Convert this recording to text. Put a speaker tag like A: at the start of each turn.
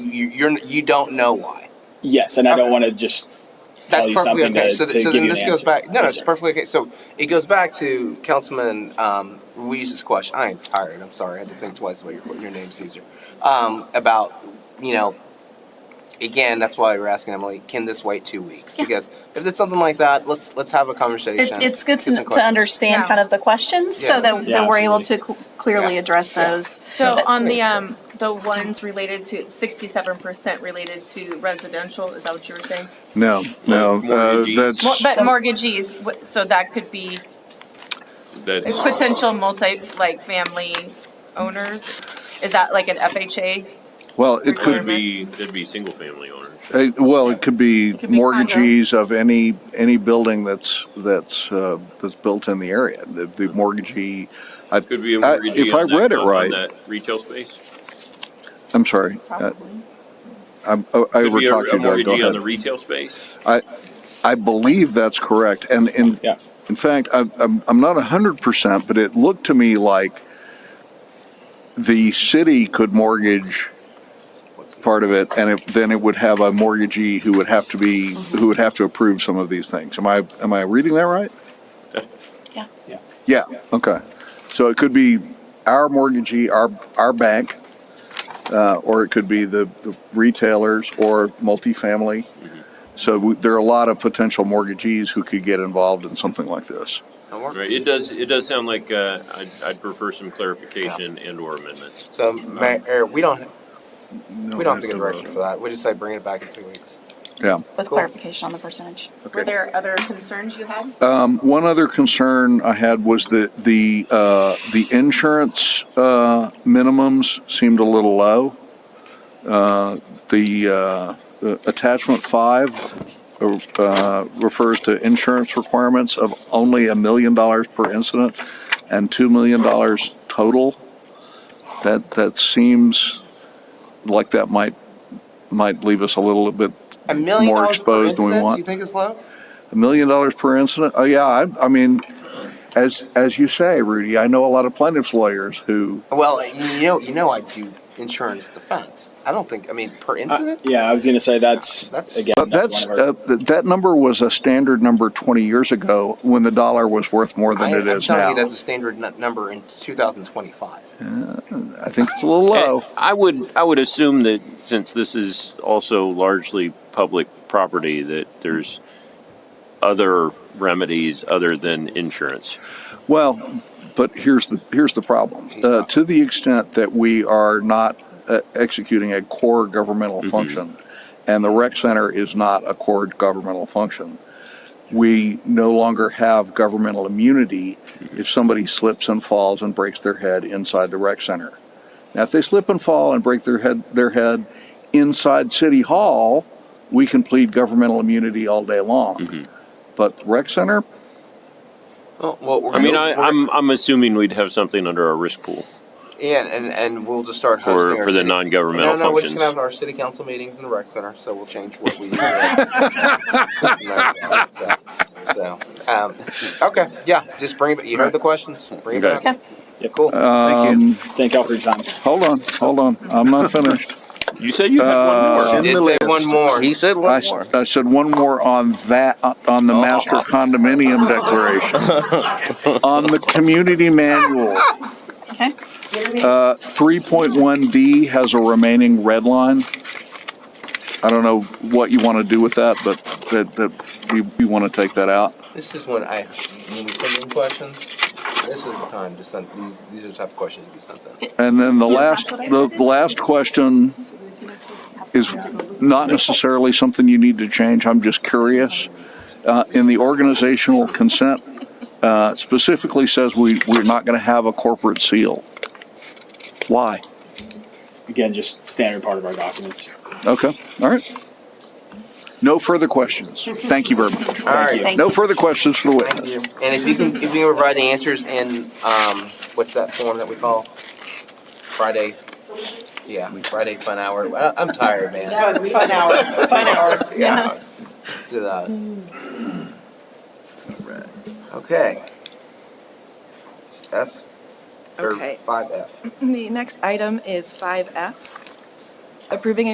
A: you, you're you don't know why.
B: Yes, and I
A: Okay.
B: don't want to just tell
A: That's
B: you
A: perfectly
B: something
A: okay.
B: to,
A: so
B: to
A: th- so
B: give
A: then
B: you an
A: this goes
B: answer.
A: back. No, no,
B: Yes,
A: it's
B: sir.
A: perfectly okay. So it goes back to Councilman um, Ruiz's question. I am tired. I'm sorry. I had to think twice about your your name, Caesar. Um, about you know, again, that's why we're asking Emily. Can this wait two weeks?
C: Yeah.
A: Because if it's something like that, let's let's have a conversation.
D: It, it's good
A: Get
D: to,
A: some
D: to
A: questions.
D: understand
C: Yeah.
D: kind of the questions
A: Yeah.
D: so that,
B: Yeah,
D: that we're able to
B: absolutely.
D: cl- clearly
A: Yeah.
D: address
A: Yeah.
D: those.
C: So on the,
A: Thanks.
C: um, the ones related to, sixty-seven percent related to residential, is that what you were saying?
E: No, no, uh,
F: Mortgagees.
C: Mor-
E: that's,
C: But mortgagees, wh- so that could be
F: That's
C: potential multi, like, family owners? Is that like an FHA?
E: well, it
F: could
E: could,
F: be, it'd be single family owners.
E: uh, well, it could be
D: could be
E: mortgagees of any, any building that's, that's, uh, that's built in the area. The, the mortgagee, I,
F: Could be a
E: I-
F: mortgagee.
E: Uh, if I
F: on that-
E: read it
F: on
E: right.
F: that Retail space.
E: I'm sorry, uh,
C: Probably.
E: I'm, I I
F: Could be a-
E: overtalked
F: a
E: you, Doug, go
F: mortgagee on
E: ahead.
F: the retail space.
E: I, I believe that's correct, and in,
B: Yeah.
E: in fact, I'm, I'm, I'm not hundred percent, but it looked to me like the city could mortgage part of it, and it, then it would have a mortgagee who would have to be, who would have to approve some of these things. Am I, am I reading that right?
D: Yeah.
B: Yeah.
E: Yeah, okay. So it could be our mortgagee, our, our bank, uh, or it could be the, the retailers or multifamily. So we- there are a lot of potential mortgagees who could get involved in something like this.
A: Don't worry.
F: Right, it does, it does sound like, uh, I'd, I'd prefer some clarification and or amendments.
A: So
B: Um,
A: Mayor, er, we don't we don't have to get direction for that. We just say bring it back in two weeks.
E: Yeah.
D: With
A: Cool.
D: clarification on the percentage.
C: Were there other concerns you had?
E: Um, one other concern I had was that the, uh, the insurance, uh, minimums seemed a little low. Uh, the, uh, the attachment five, uh, refers to insurance requirements of only a million dollars per incident and two million dollars total. That, that seems like that might, might leave us a little bit
A: A million
E: more
A: dollars per
E: exposed than we
A: incident?
E: want.
A: Do you think it's low?
E: A million dollars per incident? Oh, yeah, I, I mean, as, as you say, Rudy, I know a lot of plaintiff's lawyers who,
A: Well, you know, you know, I do insurance defense. I don't think. I mean, per
E: Uh,
A: incident.
B: Uh, Yeah, I was going to say that's,
A: That's-
B: again.
E: but that's,
B: one of our-
E: uh, th- that number was a standard number 20 years ago when the dollar was worth more than
A: I,
E: it
A: I'm
E: is
A: telling
E: now.
A: you, that's a standard nu- number in 2025.
E: I think it's a little
A: Eh,
E: low.
G: I would, I would assume that since this is also largely public property, that there's other remedies other than insurance.
E: Well, but here's the, here's the problem. Uh, to the extent that we are not uh, executing a core governmental function, and the rec center is not a core governmental function, we no longer have governmental immunity if somebody slips and falls and breaks their head inside the rec center. Now, if they slip and fall and break their head, their head inside City Hall, we can plead governmental immunity all day long. But the rec center,
A: Well, well we're
G: I mean,
A: gonna-
G: I, I'm, I'm assuming we'd have something under our risk pool
A: yeah, and and we'll just start hosting
G: for,
A: our
G: for the
A: city-
G: non-governmental
A: No, no, we're just
G: functions.
A: gonna have our city council meetings in the rec center, so we'll change what we. so, so, um, okay, yeah, just bring it. back. You heard the questions. Bring it
G: Okay.
A: back.
D: Okay.
A: Cool.
E: um,
B: Thank y'all for your time.
E: hold on, hold on, I'm not finished.
G: You said you had one more.
E: Uh,
A: Did say one more.
H: He said
E: I,
H: one
E: s-
H: more. Oh.
E: I said one more on that, on the master condominium declaration, on the community manual.
D: Okay.
E: Uh, 3.1D has a remaining red line. I don't know what you want to do with that, but that, that, you, you want to take that out.
A: This is when I when we send in questions. This is the time to send these. These are the type of questions to be sent in.
E: And then the last, the the last question is not necessarily something you need to change. I'm just curious. Uh, In the organizational consent, uh, specifically says we, we're not going to have a corporate seal. Why?
B: Again, just standard part of our documents.
E: Okay, all right. No further questions. Thank you very much.
A: All right.
D: Thank
E: No
D: you.
E: further questions for the
A: Thank you.
E: witness.
A: And if you can, if you can provide the answers in, um, what's that form that we call? Friday, yeah, Friday Fun Hour. I, I'm tired, man.
I: Fun, fun hour, fun hour. Mm.
A: Yeah. Let's do that. Okay. S, or
I: Okay.
A: five F.
I: The next item is 5F, approving a